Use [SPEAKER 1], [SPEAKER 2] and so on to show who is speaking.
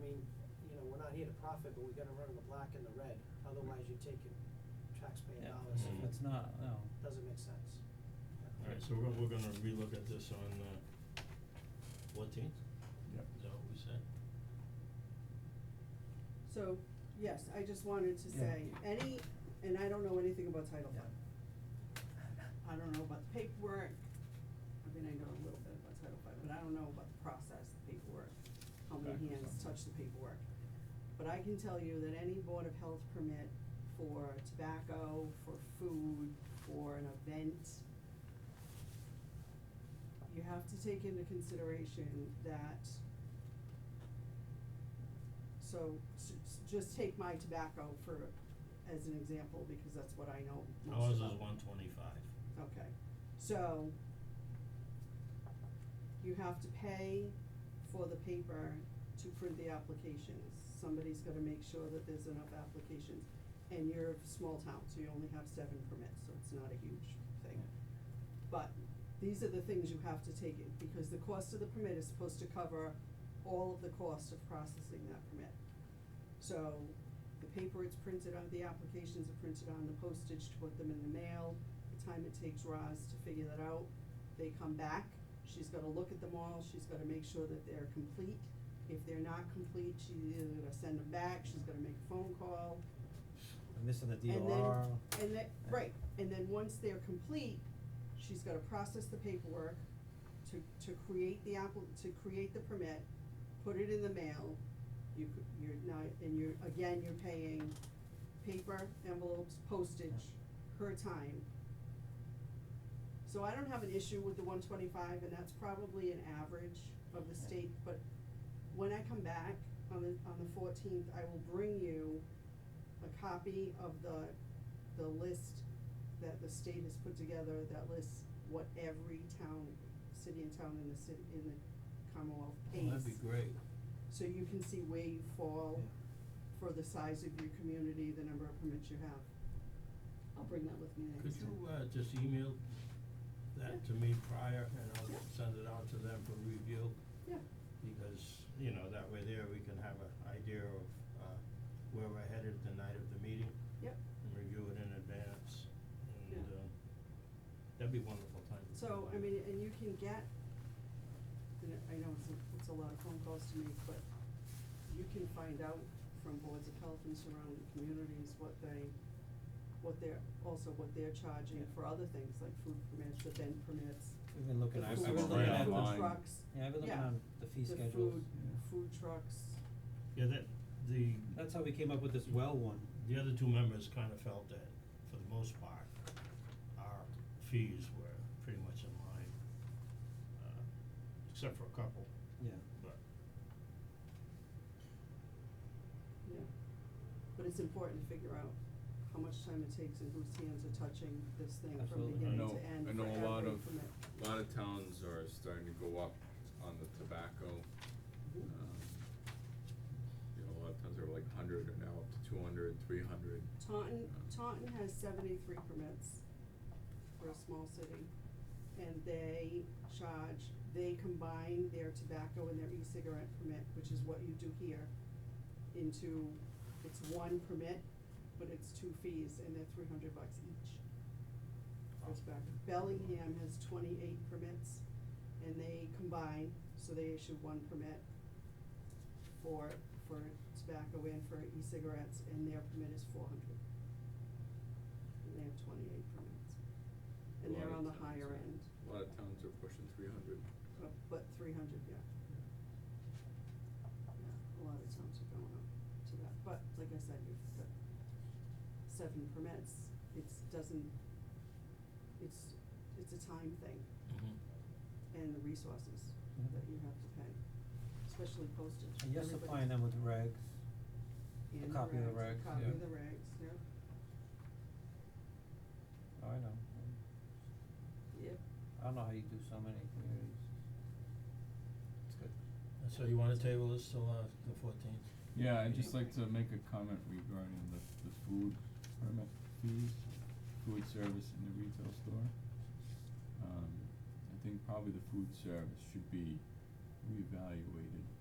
[SPEAKER 1] mean, you know, we're not here to profit, but we gotta run in the black and the red, otherwise you're taking taxpayer
[SPEAKER 2] Yeah,
[SPEAKER 1] dollars,
[SPEAKER 3] Mm.
[SPEAKER 4] Mm-hmm.
[SPEAKER 1] it
[SPEAKER 2] it's not, no.
[SPEAKER 1] doesn't make sense.
[SPEAKER 3] Alright, so we're, we're gonna relook at this on, uh, fourteenth,
[SPEAKER 5] Yep.
[SPEAKER 3] is that what we said?
[SPEAKER 4] So, yes, I just wanted to
[SPEAKER 5] Yeah.
[SPEAKER 4] say, any, and I don't know anything about Title
[SPEAKER 2] Yeah.
[SPEAKER 4] V. I don't know about the paperwork, I mean, I know a little bit about Title V, but I don't know about the process, the paperwork, how many
[SPEAKER 5] Okay.
[SPEAKER 4] hands touch the paperwork. But I can tell you that any Board of Health permit for tobacco, for food, for an event, you have to take into consideration that so, s- s- just take my tobacco for, as an example, because that's what I know most about.
[SPEAKER 3] Ours is one twenty-five.
[SPEAKER 4] Okay, so you have to pay for the paper to print the applications. Somebody's gotta make sure that there's enough applications. And you're a small town, so you only have seven permits, so it's not a huge thing. But these are the things you have to take in, because the cost of the permit is supposed to cover all of the cost of processing that permit. So the paper it's printed on, the applications are printed on, the postage to put them in the mail, the time it takes Roz to figure that out. They come back, she's gotta look at them all, she's gotta make sure that they're complete. If they're not complete, she's either gonna send them back, she's gonna make a phone call,
[SPEAKER 2] I'm missing the
[SPEAKER 4] and then,
[SPEAKER 2] DOR.
[SPEAKER 4] and then, right, and then once they're complete, she's gotta process the paperwork to, to create the appli- to create the permit, put it in the mail. You, c- you're now, and you're, again, you're paying paper, envelopes, postage, her time. So I don't have an issue with the one twenty-five, and that's probably an average of the state, but when I come back on the, on the fourteenth, I will bring you a copy of the, the list that the state has put together that lists what every town, city and town in the city, in the Commonwealth pays.
[SPEAKER 3] That'd be great.
[SPEAKER 4] So you can see where you fall for the size of your community, the number of permits you have. I'll bring that with me
[SPEAKER 3] Could
[SPEAKER 4] next time.
[SPEAKER 3] you, uh, just email
[SPEAKER 4] Yeah.
[SPEAKER 3] that to me prior, and
[SPEAKER 4] Yeah.
[SPEAKER 3] I'll send it out to them for review?
[SPEAKER 4] Yeah,
[SPEAKER 3] Because, you know, that way there, we can have an idea of, uh, where we're headed the night of the meeting,
[SPEAKER 4] yep.
[SPEAKER 3] and review it in advance, and,
[SPEAKER 4] Yeah.
[SPEAKER 3] uh, that'd be wonderful, thank you.
[SPEAKER 4] So, I mean, and you can get, you know, I know it's, a- it's a lot of phone calls to make, but you can find out from boards of health and surrounding communities what they, what they're, also what they're charging
[SPEAKER 2] Yeah.
[SPEAKER 4] for other things, like food permits, event permits.
[SPEAKER 2] We've been looking,
[SPEAKER 4] the
[SPEAKER 2] I've
[SPEAKER 4] food-
[SPEAKER 2] I've been
[SPEAKER 5] was
[SPEAKER 2] looking
[SPEAKER 5] right
[SPEAKER 4] the
[SPEAKER 2] at, the-
[SPEAKER 4] food
[SPEAKER 5] online.
[SPEAKER 4] trucks.
[SPEAKER 2] yeah, I've been looking
[SPEAKER 4] Yeah.
[SPEAKER 2] on the fee
[SPEAKER 4] The
[SPEAKER 2] schedules.
[SPEAKER 4] food, food trucks.
[SPEAKER 3] Yeah, that, the,
[SPEAKER 2] That's how we came up with this well one.
[SPEAKER 3] the other two members kind of felt that, for the most part, our fees were pretty much in line, uh, except for a couple,
[SPEAKER 2] Yeah,
[SPEAKER 3] but
[SPEAKER 4] Yeah, but it's important to figure out how much time it takes and whose hands are touching this thing from
[SPEAKER 2] Absolutely.
[SPEAKER 5] I
[SPEAKER 2] I
[SPEAKER 5] know,
[SPEAKER 4] beginning to end
[SPEAKER 5] I
[SPEAKER 4] for
[SPEAKER 5] know a lot
[SPEAKER 4] every
[SPEAKER 5] of,
[SPEAKER 4] permit.
[SPEAKER 5] a lot of towns are starting to go up on the tobacco.
[SPEAKER 4] Mhm.
[SPEAKER 5] Um, You know, a lot of towns are like hundred and now up to two hundred, three hundred.
[SPEAKER 4] Taunton, Taunton has seventy-three permits for a small city. And they charge, they combine their tobacco and their e-cigarette permit, which is what you do here, into, it's one permit, but it's two fees and they're three hundred bucks each. That's back. Bellingham has twenty-eight permits and they combine, so they issue one permit for, for tobacco and for e-cigarettes, and their permit is four hundred. And they have twenty-eight permits, and
[SPEAKER 5] A lot
[SPEAKER 4] they're
[SPEAKER 5] of
[SPEAKER 4] on the
[SPEAKER 5] towns
[SPEAKER 4] higher
[SPEAKER 5] are-
[SPEAKER 4] end,
[SPEAKER 5] A lot of towns are pushing three hundred.
[SPEAKER 4] but, but three hundred, yeah. Yeah, a lot of towns are going up to that, but like I said, you've got seven permits, it's, doesn't, it's, it's a time thing and the resources
[SPEAKER 2] Yeah.
[SPEAKER 4] that you have to pay, especially postage.
[SPEAKER 2] Mm-hmm. and you're
[SPEAKER 4] Everybody-
[SPEAKER 2] supplying them with regs,
[SPEAKER 4] And
[SPEAKER 2] a copy of the regs,
[SPEAKER 4] Copy of
[SPEAKER 5] yeah.
[SPEAKER 4] the regs, yeah.
[SPEAKER 2] oh, I know,
[SPEAKER 4] Yep.
[SPEAKER 2] I don't know how you do so many communities. It's good.
[SPEAKER 3] So you wanna table this till uh the fourteenth?
[SPEAKER 6] Yeah, I'd just like to make a comment regarding the, the food permit fees, food service in the retail store. Um, I think probably the food service should be reevaluated